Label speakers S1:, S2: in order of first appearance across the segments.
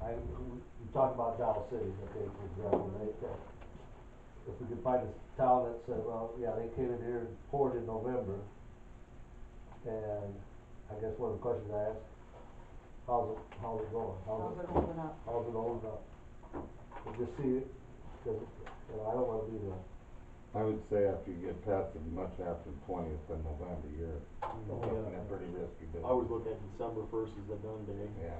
S1: I, we talked about Dow City, that they could renovate that. If we could find a town that said, well, yeah, they came in here and poured in November. And I guess one of the questions I asked, how's it, how's it going?
S2: How's it holding up?
S1: How's it holding up? And just see, cause, you know, I don't wanna be the,
S3: I would say after you get past as much after the twentieth of November, you're
S4: Oh,
S5: yeah.
S3: looking at pretty risky business.
S5: I always look at December first as the done day.
S3: Yeah,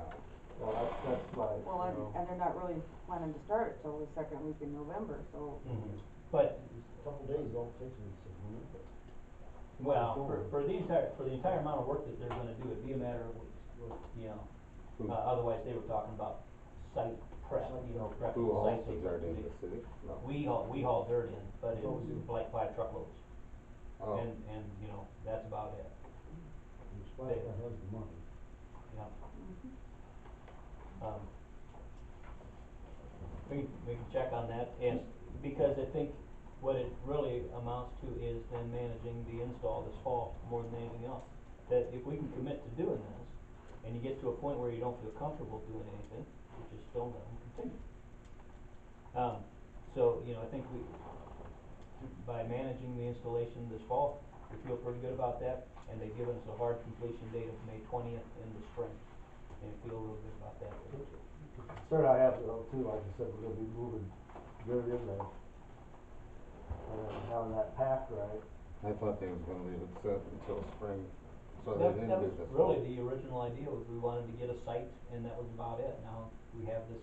S1: well, that's, that's my, you
S2: Well, and,
S1: know.
S2: and they're not really planning to start it till the second week in November, so.
S4: Mm-hmm. But,
S6: Couple days, don't take me to.
S4: well, for, for the entire, for the entire amount of work that they're gonna do, it'd be a matter of weeks, you know. Uh, otherwise, they were talking about site prep, you know, prep
S3: who
S4: the
S3: also
S4: site. they were
S3: dirt in
S4: doing.
S3: the city? No.
S4: We haul, we haul dirt in, but it was like five truckloads,
S3: Oh,
S4: and, and, you know, that's about it,
S6: Despite I have the money.
S4: you know.
S2: Mm-hmm.
S4: Um, We, we can check on that, and, because I think what it really amounts to is then managing the install this fall more than anything else. That if we can commit to doing this, and you get to a point where you don't feel comfortable doing anything, you just don't let them continue. Um, so, you know, I think we, by managing the installation this fall, we feel pretty good about that, and they've given us a hard completion date of May twentieth in the spring, and we feel real good about that.
S1: Concern I have though too, like I said, we're gonna be moving dirt in there. And then having that packed right,
S3: I thought they was gonna leave it set until spring, so they
S4: That,
S3: didn't
S4: that
S3: do
S4: was
S3: this.
S4: really the original idea, was we wanted to get a site, and that was about it, now we have this,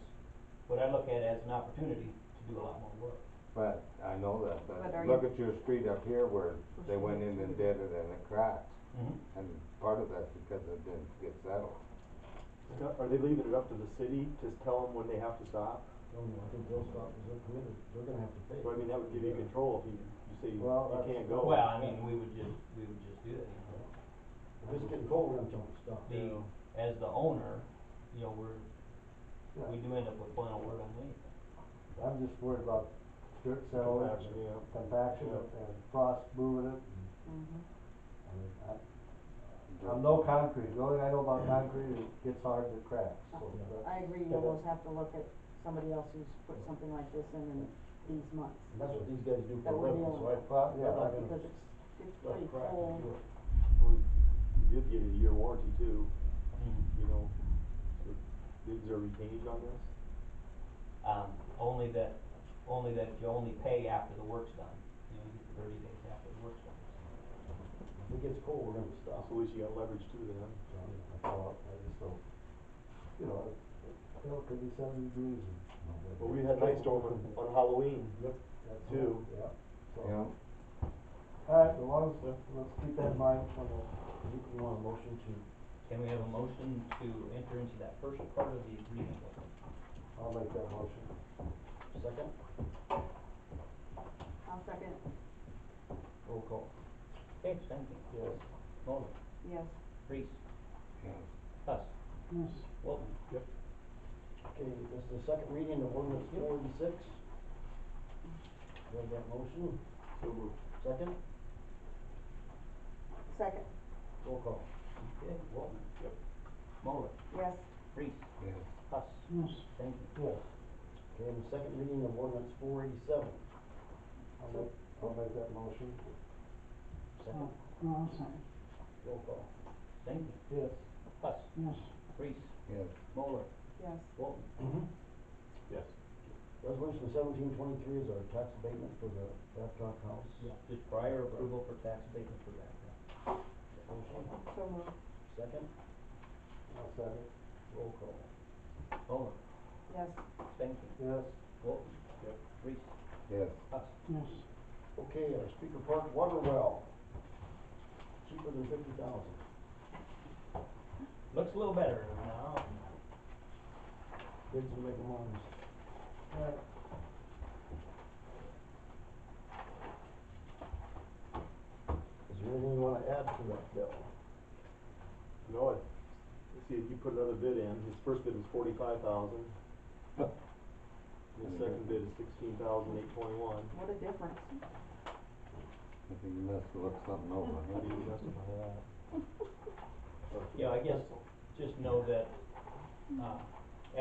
S4: what I look at as an opportunity to do a lot more work.
S3: But I know that,
S2: But are
S3: but look at your street up here where they went in and did it and it cracked.
S4: Mhm.
S3: And part of that's because it didn't get settled.
S5: Now, Are they leaving it up to the city to tell them when they have to stop?
S6: No, Oh, no, I think they'll stop, because they're committed, they're gonna have to pay.
S5: So I mean, that would give you control if you, you say you
S1: Well,
S5: you
S1: that's-
S5: can't go.
S4: Well, I mean, we would just, we would just do it, you know.
S6: If It's getting cold, I'm telling you, stop.
S4: the, as the owner, you know, we're, we do end up with final word on anything.
S1: I'm just worried about dirt settling,
S5: Compaction, yeah.
S1: compaction
S5: Yeah.
S1: and frost moving it.
S6: Mm-hmm.
S2: mhm.
S1: I mean, I, I'm no concrete, the only thing I know about concrete is it gets hard to crack,
S6: Oh,
S1: so. that's-
S2: Mm-hmm. I agree, you almost have to look at somebody else who's put something like this in in these months.
S6: And that's what these guys do for
S2: That
S6: a
S2: we're
S6: living,
S2: dealing
S6: so I.
S2: with.
S1: Well, yeah,
S6: I'm not
S1: I-
S6: gonna
S2: Because it's, it's
S6: start
S2: pretty
S6: cracking
S2: cold.
S6: through it.
S5: We did get a year warranty too, you know, So, is there retainage on this?
S4: Um, only that, only that you only pay after the work's done, you know, you get thirty days after the work's done.
S6: If it gets cold, we're gonna stop.
S5: So at least you got leverage too then.
S1: so, I thought, I just don't, you know, it- it'll could be seven degrees and.
S5: Well, we had night storm on, on Halloween.
S1: That's-
S5: too.
S1: Yeah, so.
S3: You know?
S1: All right, well, let's, let's keep that in mind for the.
S6: You, you want a motion to,
S4: Can we have a motion to enter into that first part of the agreement with them?
S1: I'll make that motion.
S6: second,
S2: I'll second,
S6: roll call.
S4: Okay, thank you.
S1: Yes.
S4: Mulder,
S2: yes.
S4: Reese,
S3: Yeah.
S4: Huss,
S2: Yes.
S4: Wolton.
S6: Okay, this is the second reading of ordinance forty-six. Make that motion,
S5: So moved.
S6: second,
S2: Second,
S6: roll call.
S4: Okay, Wolton.
S5: Yep.
S4: Mulder,
S2: yes,
S4: Reese,
S3: Yeah.
S4: Huss. Yes. Thank you.
S1: Yes,
S6: Okay, and the second reading of ordinance four eighty-seven.
S1: I'll make, I'll make that motion.
S6: Second, roll call.
S4: Thank you.
S1: Yes.
S4: Huss. Yes. Reese,
S3: Yes,
S4: Mulder,
S2: yes.
S4: Wolton.
S5: Yes.
S6: Resolution seventeen twenty-three is our tax abatement for the Babcock House.
S4: Just prior approval for tax abatement for that.
S6: Motion,
S2: So moved,
S6: second,
S1: I'll second.
S6: roll call.
S4: Mulder,
S2: yes,
S4: thank you.
S1: Yes.
S4: Wolton.
S5: Yep.
S4: Reese,
S3: yes.
S4: Huss.
S6: Okay, our Speaker Park water well, cheaper than fifty thousand.
S4: Looks a little better now.
S6: Bids will make them honest.
S1: All right.
S6: Is there anything you wanna add to that bill?
S5: No, I, see, you put another bid in, his first bid was forty-five thousand. His second bid is sixteen thousand eight twenty-one.
S2: what a difference.
S3: I think you must have looked something over,
S5: How
S3: huh?
S5: do you justify that?
S4: Yeah, I guess, just know that, uh,